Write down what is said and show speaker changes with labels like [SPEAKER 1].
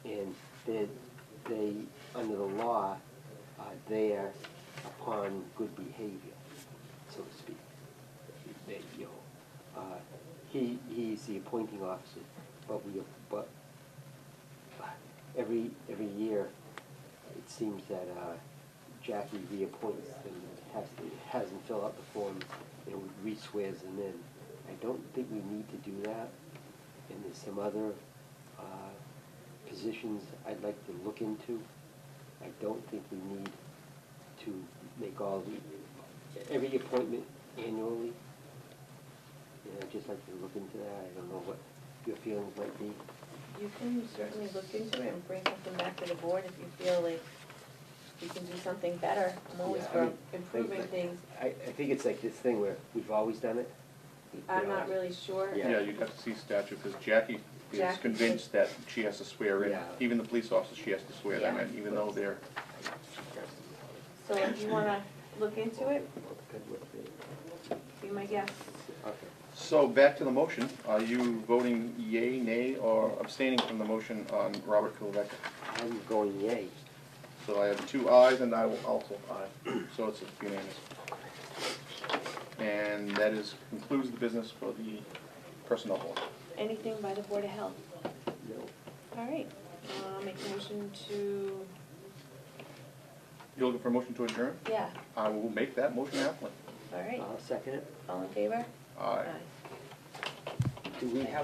[SPEAKER 1] that they, under the law, are there upon good behavior, so to speak. That, you know, uh, he, he's the appointing officer, but we, but every, every year, it seems that uh, Jackie reappoints and has, has him fill out the forms and re-swears them in. I don't think we need to do that, and there's some other uh, positions I'd like to look into. I don't think we need to make all the, every appointment annually. And I'd just like to look into that, I don't know what your feelings might be.
[SPEAKER 2] You can certainly look into it and bring something back to the board if you feel like you can do something better. I'm always
[SPEAKER 1] Yeah, I
[SPEAKER 2] for
[SPEAKER 1] mean,
[SPEAKER 2] improving
[SPEAKER 1] like-
[SPEAKER 2] things.
[SPEAKER 1] I, I think it's like this thing where we've always done it. you
[SPEAKER 2] I'm
[SPEAKER 1] know,
[SPEAKER 2] not really sure.
[SPEAKER 1] Yeah.
[SPEAKER 3] Yeah, you'd have to see statute, because Jackie is
[SPEAKER 2] Jackie.
[SPEAKER 3] convinced that she has to swear in,
[SPEAKER 1] Yeah.
[SPEAKER 3] even the police officers, she has to swear them in, even though they're,
[SPEAKER 2] So if you wanna look into it,
[SPEAKER 1] Good with it.
[SPEAKER 2] be my guest.
[SPEAKER 1] Okay.
[SPEAKER 3] So back to the motion, are you voting yay, nay, or abstaining from the motion on Robert Kulovec?
[SPEAKER 1] I'm going yay.
[SPEAKER 3] So I have two ayes and I will also aye, so it's unanimous. And that is, concludes the business for the personnel board.
[SPEAKER 2] Anything by the Board of Health.
[SPEAKER 1] No.
[SPEAKER 2] All right, uh, make a motion to,
[SPEAKER 3] You looking for a motion to adjourn?
[SPEAKER 2] yeah,
[SPEAKER 3] I will make that motion happen.
[SPEAKER 2] all right,
[SPEAKER 1] I'll second it.
[SPEAKER 2] all in favor?
[SPEAKER 3] Aye.
[SPEAKER 2] Aye.
[SPEAKER 1] Do we have